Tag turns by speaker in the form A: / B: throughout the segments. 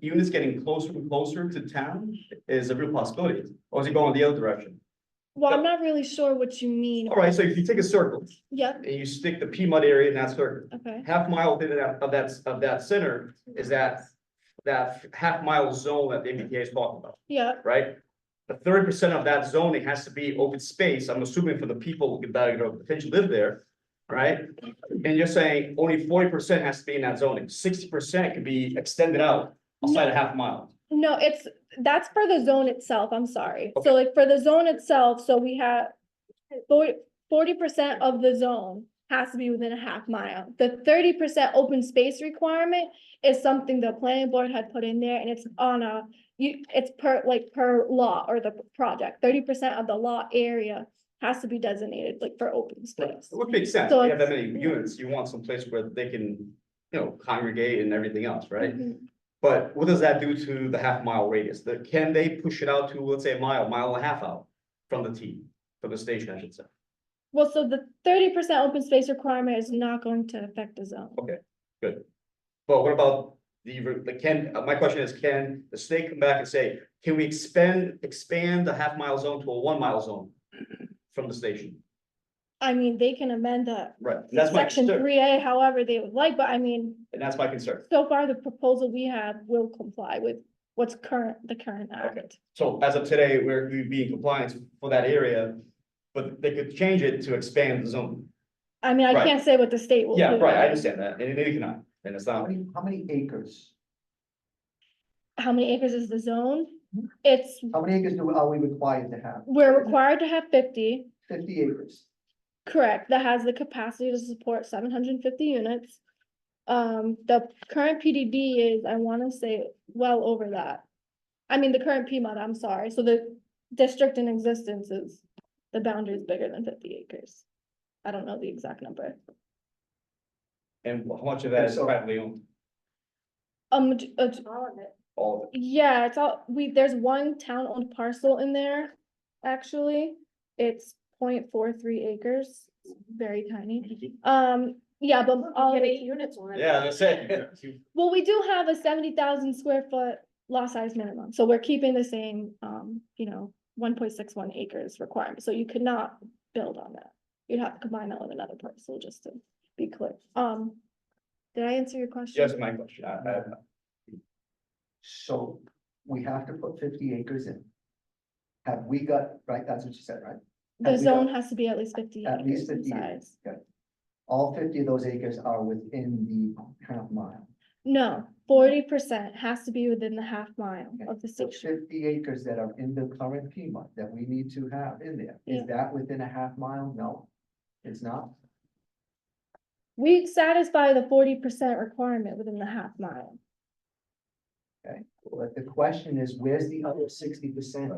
A: units getting closer and closer to town is a real possibility, or is it going the other direction?
B: Well, I'm not really sure what you mean.
A: All right, so if you take a circle
B: Yep,
A: and you stick the Piedmont area in that circle,
B: okay,
A: half mile within that, of that, of that center is that, that half mile zone that the MBTA is talking about,
B: yeah,
A: right? The thirty percent of that zoning has to be open space, I'm assuming for the people that, you know, potentially live there, right? And you're saying only forty percent has to be in that zoning, sixty percent could be extended out outside a half mile.
B: no, it's, that's for the zone itself, I'm sorry. So like for the zone itself, so we have forty percent of the zone has to be within a half mile. The thirty percent open space requirement is something the planning board had put in there and it's on a, you, it's per, like per law or the project, thirty percent of the law area has to be designated like for open space.
A: It would make sense,
B: So
A: if you have that
B: it's-
A: many units, you want some place where they can, you know, congregate and everything else, right?
B: Mhm.
A: But what does that do to the half mile radius? The- can they push it out to, let's say, a mile, mile and a half out from the T, from the station, I should say?
B: Well, so the thirty percent open space requirement is not going to affect the zone.
A: But what about the, re- the can, uh, my question is, can the state come back and say, can we expand, expand the half mile zone to a one mile zone? From the station,
B: I mean, they can amend the
A: right, that's my
B: section
A: concern,
B: three A however they would like, but I mean,
A: and that's my concern,
B: so far the proposal we have will comply with what's current, the current act.
A: so as of today, we're, we'd be in compliance for that area. But they could change it to expand the zone,
B: I mean, I
A: Right.
B: can't say what the state will do.
A: yeah, right, I understand that, and they cannot, and it's
C: How
A: not,
C: many, how many acres,
B: How many acres is the zone?
A: Mm-hmm.
C: Mhm.
B: It's,
C: how many acres do, are we required to have?
B: we're required to have fifty,
C: Fifty acres.
B: correct, that has the capacity to support seven hundred and fifty units. Um, the current PDD is, I wanna say, well over that. I mean, the current PMOD, I'm sorry, so the district in existence is, the boundary is bigger than fifty acres. I don't know the exact number.
A: and how much of that is
C: So-
A: privately owned,
B: Um, d- uh, d-
D: All of it.
A: all of it?
B: yeah, it's all, we, there's one town-owned parcel in there, actually. It's 0.43 acres, It's very tiny. Um, yeah, but all.
D: Get
B: of it-
D: eight units on it.
A: Yeah, that's it.
B: Well, we do have a seventy thousand square foot lot size minimum, so we're keeping the same, um, you know, one point six one acres requirement, so you could not build on that. You'd have to combine that with another parcel, just to be clear. Um, did I answer your question?
A: Just my question, I, I,
C: So we have to put fifty acres in. Have we got, right, that's what you said, right?
B: The
C: and we
B: zone
C: don't-
B: has to be at least fifty
C: At
B: acres
C: least
B: in
C: 50 acres.
B: size.
C: All fifty of those acres are within the half mile.
B: No, forty percent has to be within the half mile
C: Okay.
B: of the
C: So
B: station.
C: fifty acres that are in the current Piedmont that we need to have in there,
B: Yeah.
C: is that within a half mile? No, it's not.
B: We satisfy the forty percent requirement within the half mile.
C: But the question is, where's the other sixty percent?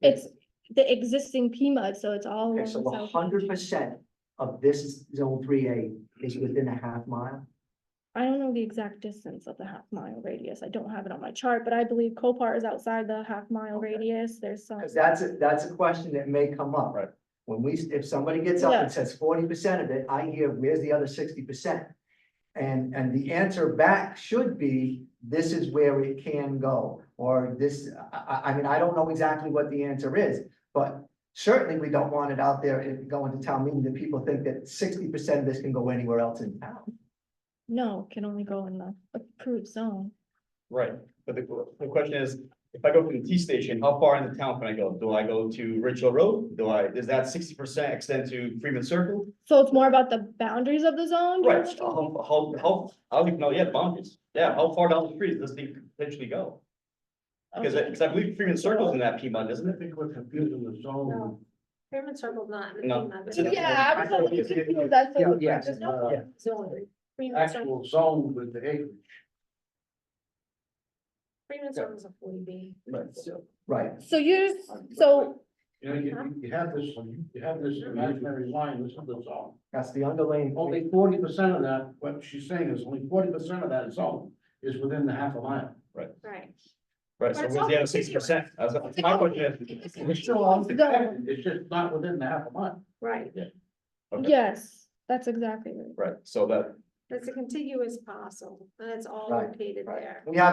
B: It's the existing PMUD, so it's all. along
C: Okay, so
B: the
C: a
B: south
C: hundred
B: edge.
C: percent of this zone three A is within a half mile?
B: I don't know the exact distance of the half mile radius. I don't have it on my chart, but I believe Copart is outside the half mile
C: Okay.
B: radius. There's some.
C: Because that's, a that's a question that may come up.
A: Right.
C: When we, if somebody gets up
B: Yeah.
C: and says forty percent of it, I hear, where's the other sixty percent? And, and the answer back should be, this is where it can go, or this, I, I, I mean, I don't know exactly what the answer is. But certainly we don't want it out there and going to town meeting that people think that sixty percent of this can go anywhere else in town.
B: No, can only go in the approved zone.
A: Right, but the, the question is, if I go from the T station, how far into town can I go? Do I go to Ridgeville Road? Do I, is that sixty percent extend to Freeman Circle?
B: So it's more about the boundaries of the zone? you're
A: Right,
B: looking for?
A: how, how, how, I don't even know yet boundaries. Yeah, how far down the street does this thing potentially go?
D: Oh,
A: Because, I-
B: Okay.
A: because I believe Freeman Circle's in that Piedmont, isn't
E: I
A: it?
E: think we're confusing the zone.
D: No. Pyramid Circle's not. in the
A: No,
D: FEMA,
A: it's
D: but
A: in the-
B: Yeah, I was a little confused. That's
C: Yeah,
B: what.
C: yeah.
B: just-
E: Uh,
D: it's only- Pyramid Circle-
E: Actual zone with the acreage.
D: Pyramid Circle's a forty B.
A: Right.
C: Right,
B: So you're, so,
E: You know, you, you have this, you have this imaginary line, this is the zone.
C: that's the underlying.
E: Only forty percent of that, what she's saying is only forty percent of that zone is within the half a mile.
D: Right.
A: Right, so
D: But it's
A: where's the other
D: all-
A: sixty percent? That's that's my question. is-
E: It's still on the
B: Zone.
E: it's just not within the half a mile.
D: Right,
A: Okay.
B: yes, that's exactly right.
A: Right, so that,
D: it's a contiguous parcel, and it's all
C: Right,
D: located
C: right.
D: there.
C: We have